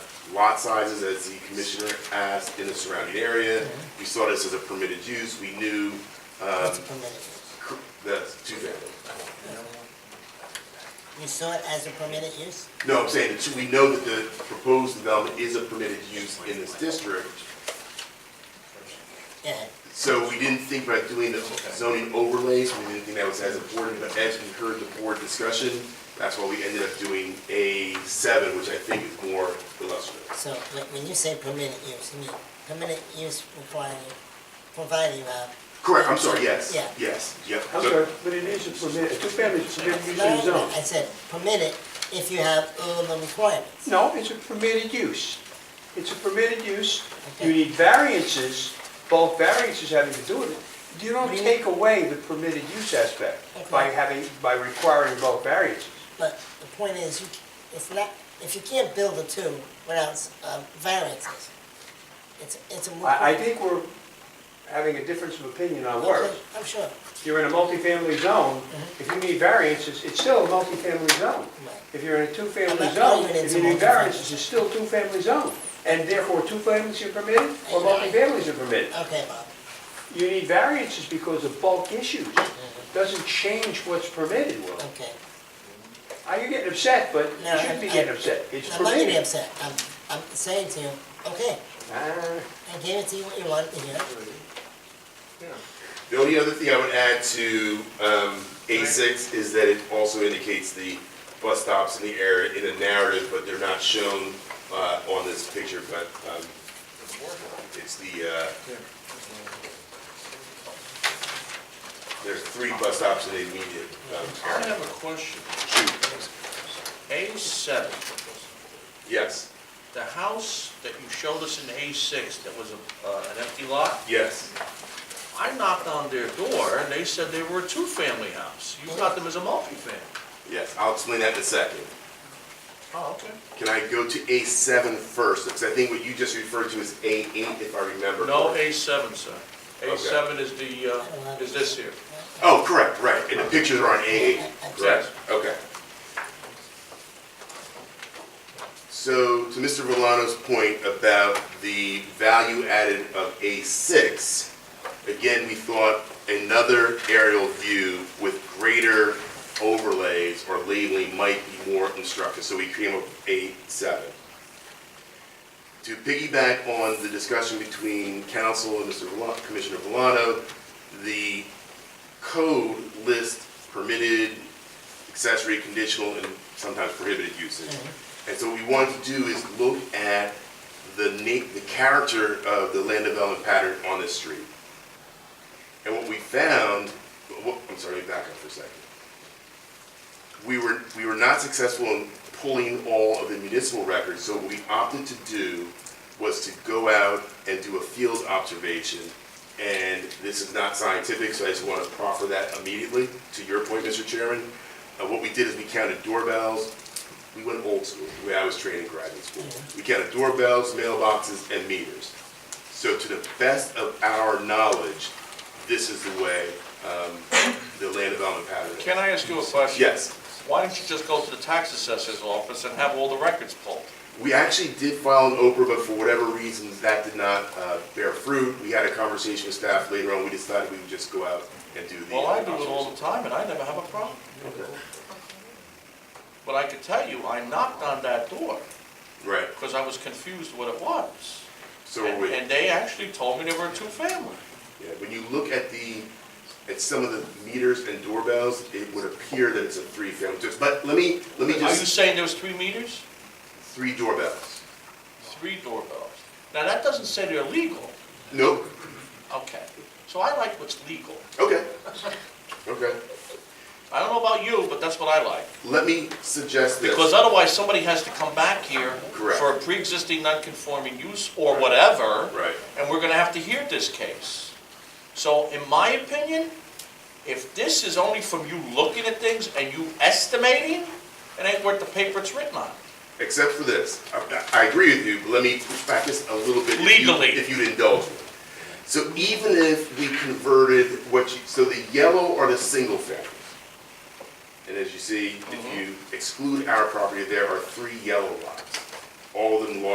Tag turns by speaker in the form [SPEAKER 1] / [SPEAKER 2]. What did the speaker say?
[SPEAKER 1] lot sizes as the commissioner asked in the surrounding area. We saw this as a permitted use, we knew, um,
[SPEAKER 2] Uh,
[SPEAKER 3] It's permitted use.
[SPEAKER 1] cr- the two family.
[SPEAKER 3] You saw it as a permitted use?
[SPEAKER 1] No, I'm saying, that we know that the proposed development is a permitted use in this district,
[SPEAKER 3] Yeah.
[SPEAKER 1] so we didn't think about doing the zoning overlays, we didn't think that was as important, but as we heard the board discussion, that's why we ended up doing A seven, which I think is more illustrative.
[SPEAKER 3] So when when you say permitted use, you mean permitted use requiring, providing, uh,
[SPEAKER 1] Correct, I'm sorry, yes,
[SPEAKER 3] Yeah.
[SPEAKER 1] yes, yep.
[SPEAKER 2] I'm sorry, but it is a permit, a two-family is a permitted use in the
[SPEAKER 3] no,
[SPEAKER 2] zone.
[SPEAKER 3] I said permitted if you have all the requirements.
[SPEAKER 2] No, it's a permitted use. It's a permitted use. You
[SPEAKER 3] Okay.
[SPEAKER 2] need variances, both variances having to do with it. You don't
[SPEAKER 3] Really?
[SPEAKER 2] take away the permitted use aspect by
[SPEAKER 3] Okay.
[SPEAKER 2] having, by requiring both variances.
[SPEAKER 3] But the point is, you, it's not, if you can't build a two without uh, variances, it's, it's a. moot
[SPEAKER 2] I, I
[SPEAKER 3] point.
[SPEAKER 2] think we're having a difference of opinion on
[SPEAKER 3] Okay,
[SPEAKER 2] words.
[SPEAKER 3] I'm sure.
[SPEAKER 2] You're in a multifamily zone, if you need variances, it's still a multifamily zone.
[SPEAKER 3] Right.
[SPEAKER 2] If you're in a
[SPEAKER 3] I'm
[SPEAKER 2] two-family
[SPEAKER 3] not
[SPEAKER 2] zone,
[SPEAKER 3] arguing it's
[SPEAKER 2] if
[SPEAKER 3] a
[SPEAKER 2] you need
[SPEAKER 3] multifamily.
[SPEAKER 2] variances, it's still two-family zone. And therefore, two families are permitted or multifamilies are permitted.
[SPEAKER 3] Okay, Bob.
[SPEAKER 2] You need variances because of bulk issues.
[SPEAKER 3] Mm-hmm.
[SPEAKER 2] Doesn't change what's permitted, Will.
[SPEAKER 3] Okay.
[SPEAKER 2] Are you getting upset? But
[SPEAKER 3] Mm-hmm. No,
[SPEAKER 2] you shouldn't be
[SPEAKER 3] I-
[SPEAKER 2] getting upset. It's
[SPEAKER 3] I'm not getting
[SPEAKER 2] permitted.
[SPEAKER 3] upset. I'm, I'm saying to you, okay,
[SPEAKER 2] Ah,
[SPEAKER 3] I gave it to you what you wanted to hear.
[SPEAKER 1] The only other thing I would add to um, A6 is that it also indicates the bus stops in the area in a narrative, but they're not shown uh, on this picture, but um, it's the, uh, there's three bus stops in the immediate um,
[SPEAKER 4] I
[SPEAKER 1] area.
[SPEAKER 4] have a question.
[SPEAKER 1] Shoot,
[SPEAKER 4] A seven,
[SPEAKER 1] yes,
[SPEAKER 4] the house that you showed us in A six that was a- uh, an empty lot,
[SPEAKER 1] yes.
[SPEAKER 4] I knocked on their door and they said they were a two-family house. You got them as a multifamily.
[SPEAKER 1] Yes, I'll explain that in a second.
[SPEAKER 4] Oh, okay.
[SPEAKER 1] Can I go to A7 first? Because I think what you just referred to is A8, if I remember.
[SPEAKER 4] No
[SPEAKER 1] correctly.
[SPEAKER 4] A seven, sir. A seven is the, uh, is this here.
[SPEAKER 1] Oh, correct, right, and the pictures are on A8, correct? Okay. So, to Mr. Valano's point about the value added of A6, again, we thought another aerial view with greater overlays or labeling might be more instructive, so we came up with A7. To piggyback on the discussion between council and Mr. Villa- Commissioner Valano, the code lists permitted, accessory, conditional, and sometimes prohibited uses. And so what we wanted to do is look at the na, the character of the land development pattern on this street. And what we found, wha- I'm sorry, let me back up for a second. We were, we were not successful in pulling all of the municipal records, so what we opted to do was to go out and do a field observation and this is not scientific, so I just want to proffer that immediately, to your point, Mr. Chairman. Uh, what we did is we counted doorbells, we went old school, the way I was trained in graduate school. We counted doorbells, mailboxes, and meters. So to the best of our knowledge, this is the way, um, the land development pattern. is.
[SPEAKER 4] Can I ask you a question?
[SPEAKER 1] Yes,
[SPEAKER 4] Why don't you just go to the tax assessor's office and have all the records pulled?
[SPEAKER 1] we actually did file an Oprah, but for whatever reasons, that did not, uh, bear fruit. We had a conversation with staff later on, we decided we would just go out and do the.
[SPEAKER 4] Well, I do it all the time and I never have a problem. But I could tell you, I knocked on that door
[SPEAKER 1] Right,
[SPEAKER 4] because I was confused what it was.
[SPEAKER 1] so we're
[SPEAKER 4] And and they actually told me they were a two-family.
[SPEAKER 1] Yeah, when you look at the, at some of the meters and doorbells, it would appear that it's a three-family, just, but let me, let me
[SPEAKER 4] Are you
[SPEAKER 1] just,
[SPEAKER 4] saying there was three meters?
[SPEAKER 1] three doorbells.
[SPEAKER 4] Three doorbells. Now, that doesn't say they're legal.
[SPEAKER 1] Nope,
[SPEAKER 4] Okay. So I like what's legal.
[SPEAKER 1] okay, okay.
[SPEAKER 4] I don't know about you, but that's what I like.
[SPEAKER 1] Let me suggest this.
[SPEAKER 4] Because otherwise, somebody has to come back here
[SPEAKER 1] Correct.
[SPEAKER 4] for a pre-existing non-conforming use or whatever.
[SPEAKER 1] Right.
[SPEAKER 4] And we're gonna have to hear this case. So in my opinion, if this is only from you looking at things and you estimating, it ain't worth the paper it's written on.
[SPEAKER 1] except for this. I, I agree with you, but let me push back just a little bit. if you-
[SPEAKER 4] Legally.
[SPEAKER 1] If you'd indulge me. So even if we converted what you, so the yellow are the single families. And as you see, if you exclude our property, there are three yellow lots, all of them large.